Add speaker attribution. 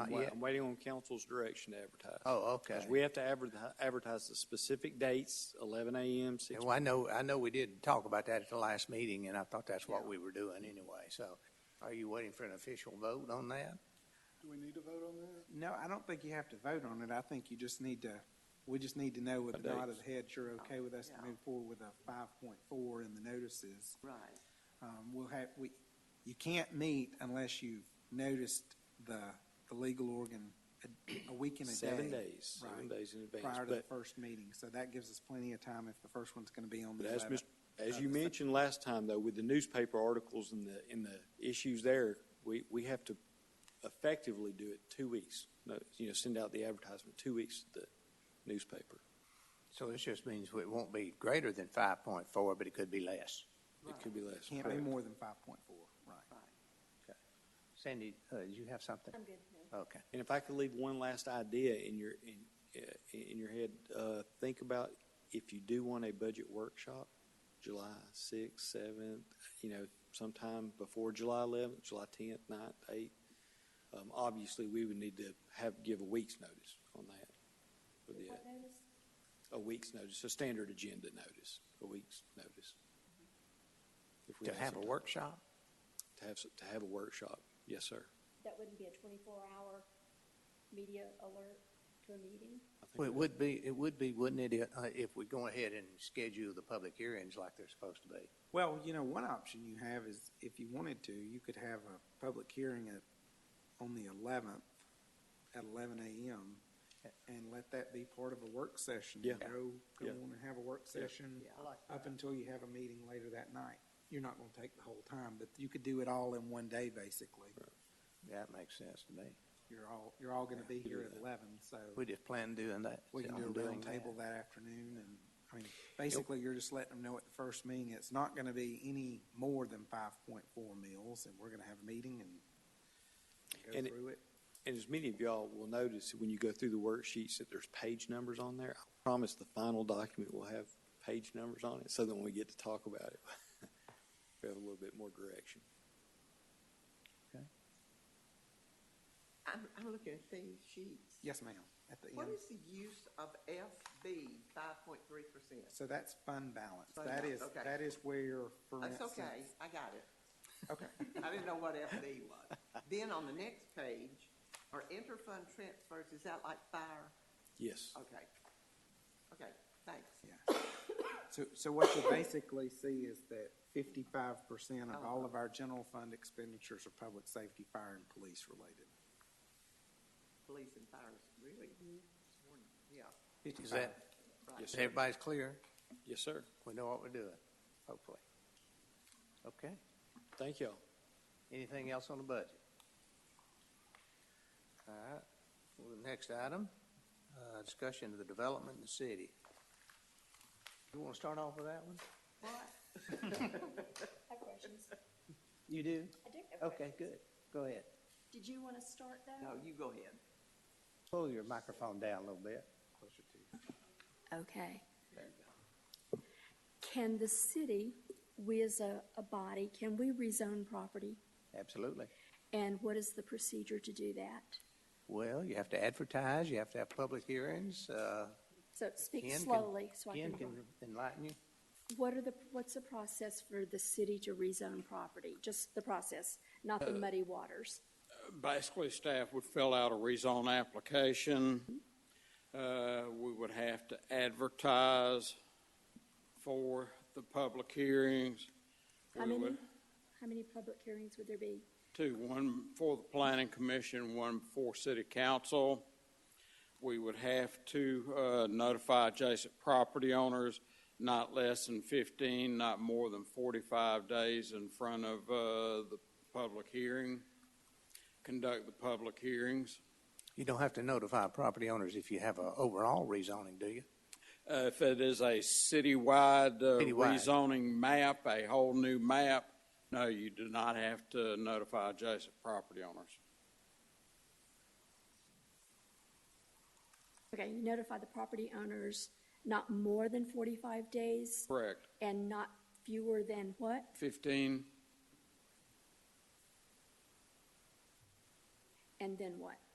Speaker 1: Uh,
Speaker 2: not
Speaker 3: wa-
Speaker 2: yet?
Speaker 3: I'm waiting on council's direction to advertise.
Speaker 2: Oh, okay.
Speaker 3: Because we have to advertise, advertise the specific dates, eleven AM, six.
Speaker 2: Well, I know, I know we did talk about that at the last meeting, and I thought that's what we were doing anyway. So are you waiting for an official vote on that?
Speaker 4: Do we need to vote on that?
Speaker 1: No, I don't think you have to vote on it. I think you just need to, we just need to know with a nod of the head, you're okay with us to
Speaker 5: Yeah.
Speaker 1: move forward with a five point four and the notices.
Speaker 5: Right.
Speaker 1: Um, we'll have, we, you can't meet unless you've noticed the, the legal organ a, a week and a day.
Speaker 3: Seven days, seven
Speaker 1: Right.
Speaker 3: days in advance.
Speaker 1: Prior to the
Speaker 3: But,
Speaker 1: first meeting, so that gives us plenty of time if the first one's gonna be on
Speaker 3: but
Speaker 1: the
Speaker 3: as
Speaker 1: eleventh.
Speaker 3: Mr., as
Speaker 1: of
Speaker 3: you
Speaker 1: the se-
Speaker 3: mentioned last time, though, with the newspaper articles and the, and the issues there, we, we have to effectively do it two weeks. No, You know, send out the advertisement two weeks to the newspaper.
Speaker 2: So this just means it won't be greater than five point four, but it could be less.
Speaker 3: It could be less.
Speaker 1: Can't be more than five point four, right.
Speaker 2: Sandy, uh, did you have something? I'm good. Okay.
Speaker 3: And if I could leave one last idea in your, in, uh, in your head, uh, think about if you do want a budget workshop, July sixth, seventh, you know, sometime before July eleventh, July tenth, ninth, eighth. Um, obviously, we would need to have, give a week's notice on that. for the- A week's notice, a standard agenda notice, a week's notice. If we
Speaker 2: To have a
Speaker 3: some-
Speaker 2: workshop?
Speaker 3: To have, some- to have a workshop, yes, sir.
Speaker 6: that wouldn't be a twenty-four hour media alert to a meeting?
Speaker 3: I think
Speaker 2: Well, it
Speaker 3: that-
Speaker 2: would be, it would be, wouldn't it, uh, if we go ahead and schedule the public hearings like they're supposed to be?
Speaker 1: Well, you know, one option you have is, if you wanted to, you could have a public hearing at, on the eleventh at eleven AM, and let that be part of a work session.
Speaker 3: Yeah.
Speaker 1: Go, go
Speaker 3: Yeah.
Speaker 1: on and have a work session
Speaker 5: Yeah, I like
Speaker 1: up until you have a meeting later that night. You're not gonna take the whole time, but you could do it all in one day, basically.
Speaker 2: That makes sense to me.
Speaker 1: You're all, you're all gonna be here at eleven, so
Speaker 2: We just plan doing that.
Speaker 1: we can do
Speaker 2: on
Speaker 1: a
Speaker 2: doing
Speaker 1: round table that afternoon, and, I mean, basically, you're just letting them know at the first meeting, it's not gonna be any more than five point four mils, and we're gonna have a meeting and
Speaker 3: And
Speaker 1: go
Speaker 3: it-
Speaker 1: through it.
Speaker 3: And as many of y'all will notice, when you go through the worksheets, that there's page numbers on there. I promise the final document will have page numbers on it, so that when we get to talk about it, we have a little bit more direction.
Speaker 5: I'm, I'm looking at these sheets.
Speaker 1: Yes, ma'am, at the um,
Speaker 5: What
Speaker 1: end.
Speaker 5: is the use of FB five point three percent?
Speaker 1: So that's fund balance.
Speaker 5: Fund
Speaker 1: That
Speaker 5: balance,
Speaker 1: is,
Speaker 5: okay.
Speaker 1: that is where, for
Speaker 5: That's
Speaker 1: instance.
Speaker 5: okay, I got it.
Speaker 1: Okay.
Speaker 5: I didn't know what FB was. Then on the next page, are interfund transfers, is that like fire?
Speaker 3: Yes.
Speaker 7: Uh,
Speaker 5: Okay. Okay, thanks.
Speaker 1: Yeah. So, so what you basically see is that fifty-five percent
Speaker 5: Oh,
Speaker 1: of all of our general fund expenditures are public safety, fire, and police related.
Speaker 5: Police and fire is really, yeah,
Speaker 2: that. Is that,
Speaker 5: right.
Speaker 3: Yes,
Speaker 2: is
Speaker 3: sir.
Speaker 2: everybody's clear?
Speaker 3: Yes, sir.
Speaker 2: We know what we're doing, hopefully. Okay.
Speaker 3: Thank y'all.
Speaker 2: Anything else on the budget? All right, well, the next item, uh, discussion of the development in the city. You want to start off with that one?
Speaker 5: What?
Speaker 6: I have questions.
Speaker 2: You do?
Speaker 6: I do have
Speaker 2: Okay,
Speaker 6: questions.
Speaker 2: good. Go ahead.
Speaker 6: Did you want to start that?
Speaker 5: No, you go ahead.
Speaker 2: Pull your microphone down a little bit. Closer to you.
Speaker 6: Okay. Can the city, we as a, a body, can we rezone property?
Speaker 2: Absolutely.
Speaker 6: And what is the procedure to do that?
Speaker 2: Well, you have to advertise, you have to have public hearings. uh,
Speaker 6: So speak
Speaker 2: Ken can-
Speaker 6: slowly so I
Speaker 2: Ken
Speaker 6: can.
Speaker 2: can enlighten you.
Speaker 6: What are the, what's the process for the city to rezone property? Just the process, not the muddy waters.
Speaker 7: basically, staff would fill out a rezone application. Uh, We would have to advertise for the public hearings.
Speaker 6: How
Speaker 7: We
Speaker 6: many,
Speaker 7: would-
Speaker 6: how many public hearings would there be?
Speaker 7: Two, one for the planning commission, one for city council. We would have to uh, notify adjacent property owners not less than 15, not more than 45 days in front of uh, the public hearing, conduct the public hearings.
Speaker 2: You don't have to notify property owners if you have a overall rezoning, do you?
Speaker 7: Uh, If it is a citywide uh,
Speaker 2: Citywide.
Speaker 7: rezoning map, a whole new map, no, you do not have to notify adjacent property owners.
Speaker 6: Okay, you notify the property owners not more than 45 days
Speaker 7: Correct.
Speaker 6: and not fewer than what?
Speaker 7: 15,
Speaker 6: And then what?